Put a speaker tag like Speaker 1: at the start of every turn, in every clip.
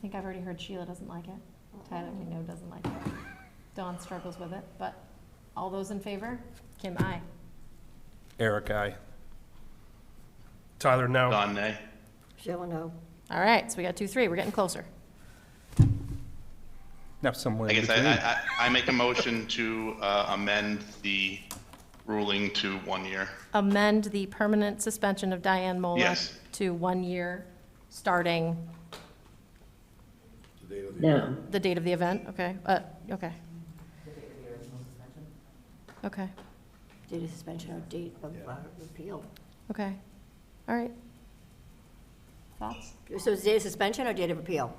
Speaker 1: think I've already heard Sheila doesn't like it. Tyler, we know, doesn't like it. Dawn struggles with it, but all those in favor? Kim, aye.
Speaker 2: Eric, I. Tyler, no.
Speaker 3: Don, nay.
Speaker 4: Sheila, no.
Speaker 1: All right, so we got two, three. We're getting closer.
Speaker 2: Now somewhere
Speaker 3: I
Speaker 2: in
Speaker 3: guess I,
Speaker 2: between.
Speaker 3: I, I I make a motion to uh, amend the ruling to one year.
Speaker 1: Amend the permanent suspension of Diane Mola
Speaker 3: Yes.
Speaker 1: to one year, starting
Speaker 5: No,
Speaker 1: the date of the event, okay? Uh, okay. Okay,
Speaker 4: Date of suspension or date of uh, repeal.
Speaker 1: okay. All right. Thoughts?
Speaker 4: So it's date of suspension or date of repeal?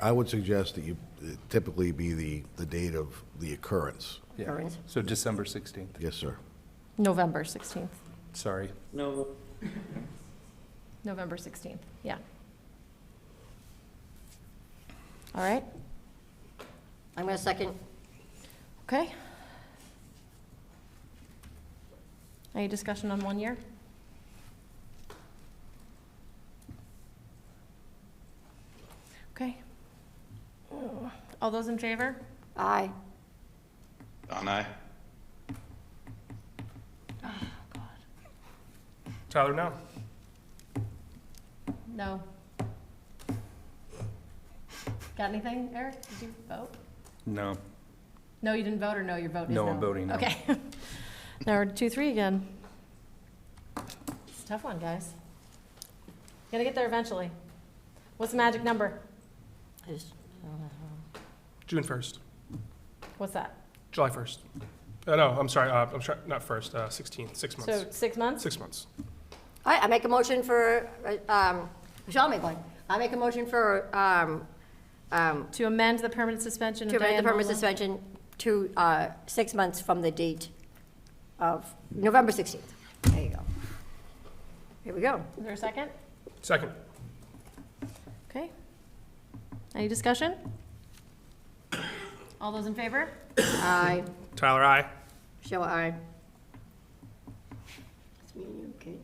Speaker 6: I would suggest that you typically be the, the date of the occurrence.
Speaker 2: Yeah.
Speaker 4: Current.
Speaker 2: So December 16th,
Speaker 6: Yes, sir.
Speaker 1: November 16th.
Speaker 2: sorry.
Speaker 5: no,
Speaker 1: November 16th, yeah. All right,
Speaker 4: I'm going to second.
Speaker 1: okay. Any discussion on one year? Okay. All those in favor?
Speaker 4: Aye.
Speaker 3: Don, aye.
Speaker 2: Tyler, no.
Speaker 1: No. Got anything, Eric? Did you vote?
Speaker 2: No.
Speaker 1: No, you didn't vote, or no, your vote is no?
Speaker 2: No, I'm voting no.
Speaker 1: Okay. Now we're two, three again. It's a tough one, guys. Gotta get there eventually. What's the magic number?
Speaker 4: I just- I don't know.
Speaker 7: June first,
Speaker 1: What's that?
Speaker 7: July first. Uh, no, I'm sorry. Uh, I'm sorry, not first. Uh, sixteenth, six months.
Speaker 1: So six months?
Speaker 7: six months.
Speaker 4: All right, I make a motion for, uh, um, Michelle make one. I make a motion for, um, um,
Speaker 1: To amend the permanent suspension
Speaker 4: to
Speaker 1: of
Speaker 4: amend the
Speaker 1: Diane
Speaker 4: permanent
Speaker 1: Nolan?
Speaker 4: suspension to uh, six months from the date of November 16th. There you go. Here we go.
Speaker 1: Is there a second?
Speaker 7: Second,
Speaker 1: Okay. Any discussion? All those in favor?
Speaker 4: Aye.
Speaker 7: Tyler, I.
Speaker 4: Sheila, aye. It's me and you, Kate.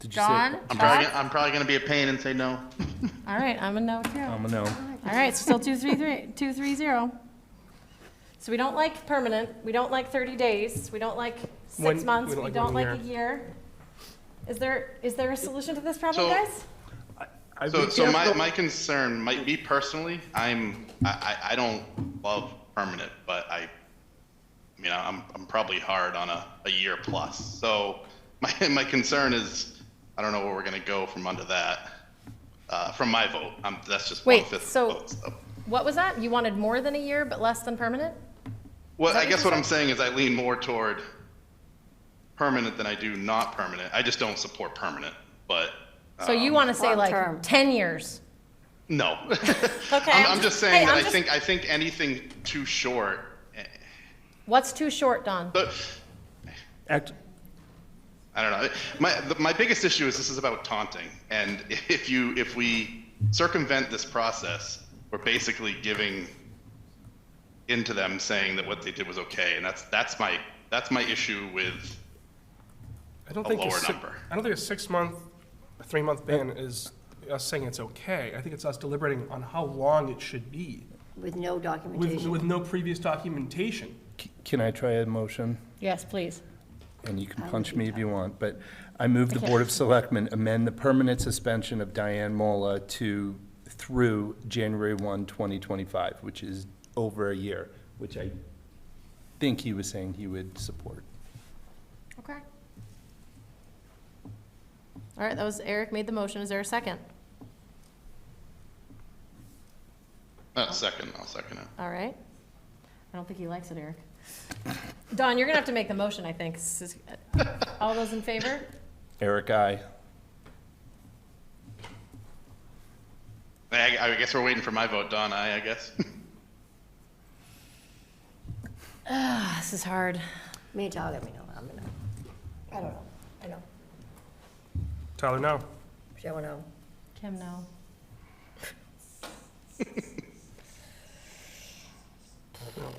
Speaker 2: Did you say-
Speaker 1: John?
Speaker 3: I'm probably,
Speaker 1: Todd?
Speaker 3: gonna- I'm probably gonna be a pain and say no.
Speaker 1: All right, I'm a no too.
Speaker 2: I'm a no.
Speaker 1: All right, so still two, three, three, two, three, zero. So we don't like permanent, we don't like thirty days, we don't like
Speaker 7: One-
Speaker 1: six
Speaker 7: we
Speaker 1: months,
Speaker 7: don't
Speaker 1: we
Speaker 7: like
Speaker 1: don't
Speaker 7: one
Speaker 1: like a year. Is there, is there a solution to this problem,
Speaker 3: So-
Speaker 1: guys?
Speaker 2: I'd
Speaker 3: So,
Speaker 2: be
Speaker 3: so my,
Speaker 2: careful.
Speaker 3: my concern might be personally, I'm, I, I, I don't love permanent, but I, you know, I'm, I'm probably hard on a, a year plus. So my, my concern is, I don't know where we're gonna go from under that, uh, from my vote. Um, that's just one
Speaker 1: Wait,
Speaker 3: fifth of
Speaker 1: so-
Speaker 3: votes, so.
Speaker 1: What was that? You wanted more than a year, but less than permanent?
Speaker 3: Well,
Speaker 1: that
Speaker 3: I
Speaker 1: what
Speaker 3: guess
Speaker 1: you
Speaker 3: what I'm saying is I lean more toward permanent than I do not permanent. I just don't support permanent, but
Speaker 1: So you
Speaker 3: Um,
Speaker 1: want to say
Speaker 4: Long-term.
Speaker 1: like ten years?
Speaker 3: no.
Speaker 1: Okay.
Speaker 3: I'm, I'm just saying
Speaker 1: hey,
Speaker 3: that
Speaker 1: I'm
Speaker 3: I
Speaker 1: just-
Speaker 3: think I think anything too short. eh,
Speaker 1: What's too short, Don?
Speaker 3: But
Speaker 2: Act-
Speaker 3: I don't know. My the, my biggest issue is this is about taunting, and if you if we circumvent this process, we're basically giving into them saying that what they did was okay, and that's that's my that's my issue with.
Speaker 7: I don't
Speaker 3: A
Speaker 7: think
Speaker 3: lower
Speaker 7: si-
Speaker 3: number.
Speaker 7: I don't think a six month, a three month ban is us saying it's okay. I think it's us deliberating on how long it should be
Speaker 4: With no
Speaker 7: with,
Speaker 4: documentation.
Speaker 7: with no previous documentation.
Speaker 2: c- Can I try a motion?
Speaker 1: Yes, please.
Speaker 2: and you can punch me if you want, but I move the Board of Selectmen amend the permanent suspension of Diane Mola to, through January 1, 2025, which is over a year, which I think he was saying he would support.
Speaker 1: Okay. All right, that was, Eric made the motion. Is there a second? Oh.
Speaker 3: Uh, second, I'll second it.
Speaker 1: All right. I don't think he likes it, Eric. Don, you're gonna have to make the motion, I think. This is- All those in favor?
Speaker 2: Eric, I.
Speaker 3: I, I guess we're waiting for my vote, Don. I, I guess.
Speaker 1: This is hard.
Speaker 4: Me and Tyler, let me know. I'm gonna, I don't know. I know.
Speaker 7: Tyler, no.
Speaker 4: Sheila, no.
Speaker 1: Kim, no.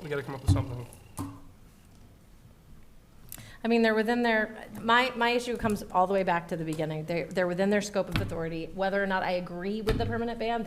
Speaker 7: We got to come up with something.
Speaker 1: I mean, they're within their, my, my issue comes all the way back to the beginning. They're, they're within their scope of authority. Whether or not I agree with the permanent ban,